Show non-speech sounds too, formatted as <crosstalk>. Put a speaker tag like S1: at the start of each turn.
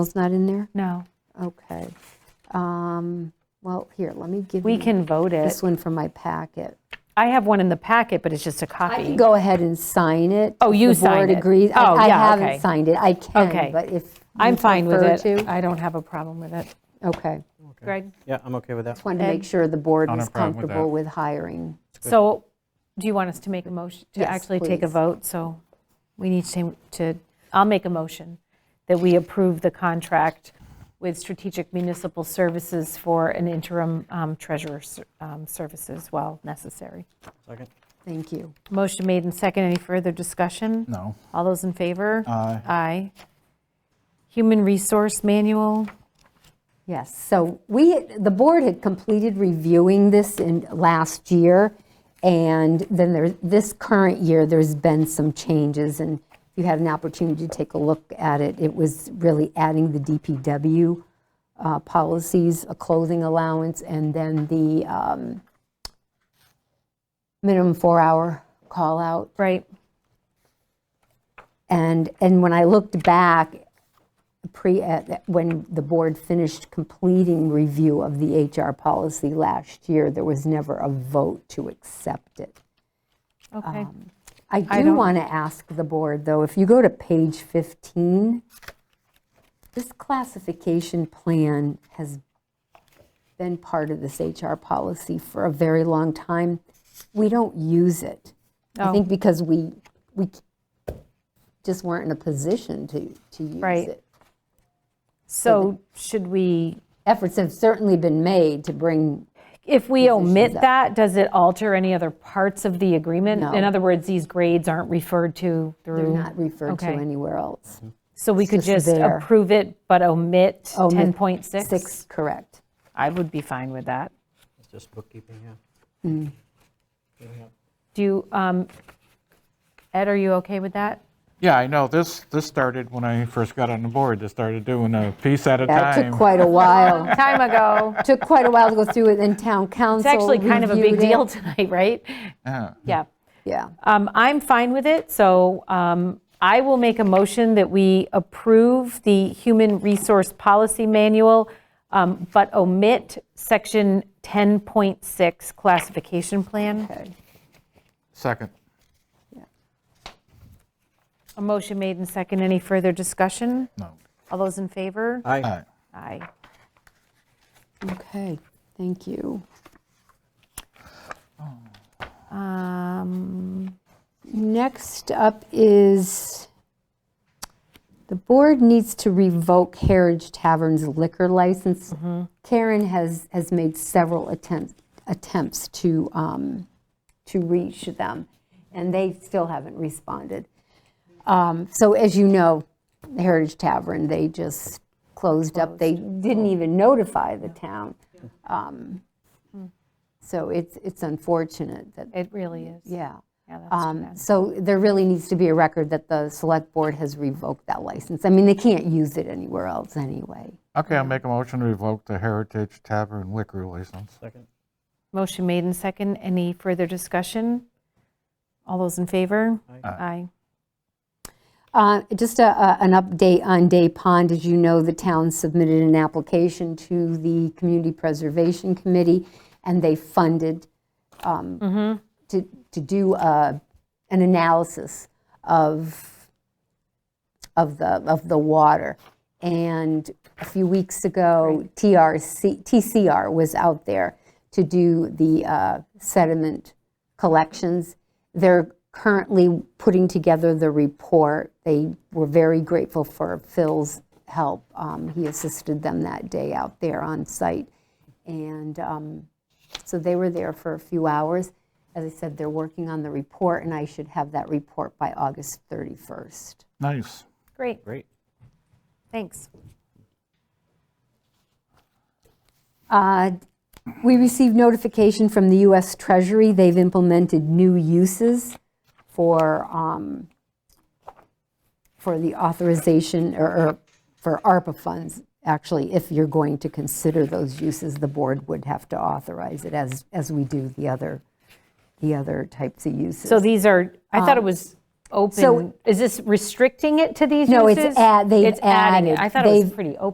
S1: It's not in there?
S2: No,
S1: Okay. Um, Well, here, let me give you.
S2: we can vote it.
S1: This one from my packet.
S2: I have one in the packet, but it's just a
S1: I
S2: copy.
S1: can go ahead and sign it.
S2: Oh,
S1: if
S2: you
S1: The board
S2: signed it.
S1: agrees. I-
S2: Oh, yeah,
S1: I
S2: okay.
S1: haven't signed it. I
S2: Okay.
S1: can, but if. you
S2: I'm fine with
S1: prefer
S2: it.
S1: to-
S2: I don't have a problem with it.
S1: Okay.
S2: Greg?
S3: Yeah, I'm okay with that.
S1: Just wanted to make sure the board
S4: Not a
S1: was
S4: problem with
S1: comfortable
S4: that.
S1: with hiring.
S2: So do you want us to make a motion, to
S1: Yes,
S2: actually take a
S1: please.
S2: vote? So we need to, to, I'll make a motion that we approve the contract with Strategic Municipal Services for an interim um, treasurer ser- um, services while necessary.
S3: Second.
S1: Thank you.
S2: Motion made and second. Any further discussion?
S4: No.
S2: All those in favor?
S4: Aye.
S2: Aye. Human Resource Manual,
S1: Yes, so we, the board had completed reviewing this in, last year, and then there, this current year, there's been some changes, and if you had an opportunity to take a look at it, it was really adding the DPW uh, policies, a clothing allowance, and then the um, minimum four-hour call-out.
S2: right?
S1: And, and when I looked back, pre, at- when the board finished completing review of the HR policy last year, there was never a vote to accept it.
S2: Okay.
S1: Um, I
S2: I
S1: do
S2: don't-
S1: want to ask the board, though, if you go to page 15, this classification plan has been part of this HR policy for a very long time. We don't use it. I
S2: Oh.
S1: think because we, we just weren't in a position to, to use
S2: Right.
S1: it.
S2: So should we,
S1: Efforts have certainly been made to bring,
S2: if we omit
S1: up.
S2: that, does it alter any other parts of the agreement?
S1: No.
S2: In other words, these grades aren't referred to
S1: they're
S2: through,
S1: not referred to
S2: Mm-hmm. Okay.
S1: anywhere else.
S2: so we could
S1: just
S2: just
S1: there.
S2: approve it but omit
S1: Oh, mi-
S2: 10.6?
S1: Six, correct.
S2: I would be fine with that.
S3: It's just bookkeeping, yeah.
S2: Do, you, um, Ed, are you okay with that?
S4: Yeah, I know, this, this started when I first got on the board, they started doing a piece at a
S1: Yeah, It
S4: time.
S1: took quite a while.
S2: <laughs>
S1: <laughs>
S2: Time ago.
S1: took quite a while to go through it, then town council
S2: It's actually kind of a big
S1: reviewed it.
S2: deal tonight, right?
S4: Yeah.
S2: Yeah.
S1: Yeah,
S2: Um, I'm fine with it, so um, I will make a motion that we approve the Human Resource Policy Manual, um, but omit Section 10.6 Classification Plan.
S1: okay.
S4: Second.
S2: A motion made and second. Any further discussion?
S4: No.
S2: All those in favor?
S3: Aye.
S4: Aye.
S2: Aye.
S1: Okay, thank you.
S2: Um,
S1: Next up is, the board needs to revoke Heritage Tavern's liquor license. Karen has, has made several attempts, attempts to, um, to reach them, and they still haven't responded. Um, So as you know, the Heritage Tavern, they just closed up. They didn't even notify the town. Um, So it's, it's unfortunate that,
S2: It really is.
S1: yeah.
S2: Yeah, that's
S1: Um,
S2: too bad.
S1: So there really needs to be a record that the select board has revoked that license. I mean, they can't use it anywhere else anyway.
S4: Okay, I'll make a motion to revoke the Heritage Tavern liquor license.
S3: Second.
S2: Motion made and second. Any further discussion? All those in favor?
S3: Aye.
S2: Aye.
S1: Uh, Just a- a- an update on Day Pond. As you know, the town submitted an application to the Community Preservation Committee, and they funded um,
S2: Mm-hmm.
S1: to to do uh, an analysis of, of the, of the water. And a few weeks ago, TRC, TCR was out there to do the uh, sediment collections. They're currently putting together the report. They were very grateful for Phil's help. Um, He assisted them that day out there on site. And um, so they were there for a few hours. As I said, they're working on the report, and I should have that report by August 31st.
S4: Nice.
S2: Great,
S3: Great.
S2: thanks.
S1: Uh, We received notification from the U.S. Treasury, they've implemented new uses for, um, for the authorization, or- or for ARPA funds, actually, if you're going to consider those uses, the board would have to authorize it, as, as we do the other, the other types of uses. Um,
S2: So these are, I thought it was open, is this restricting it to these uses?
S1: No, it's add- they've
S2: It's adding it.
S1: added-
S2: I thought it was
S1: they've-
S2: pretty open.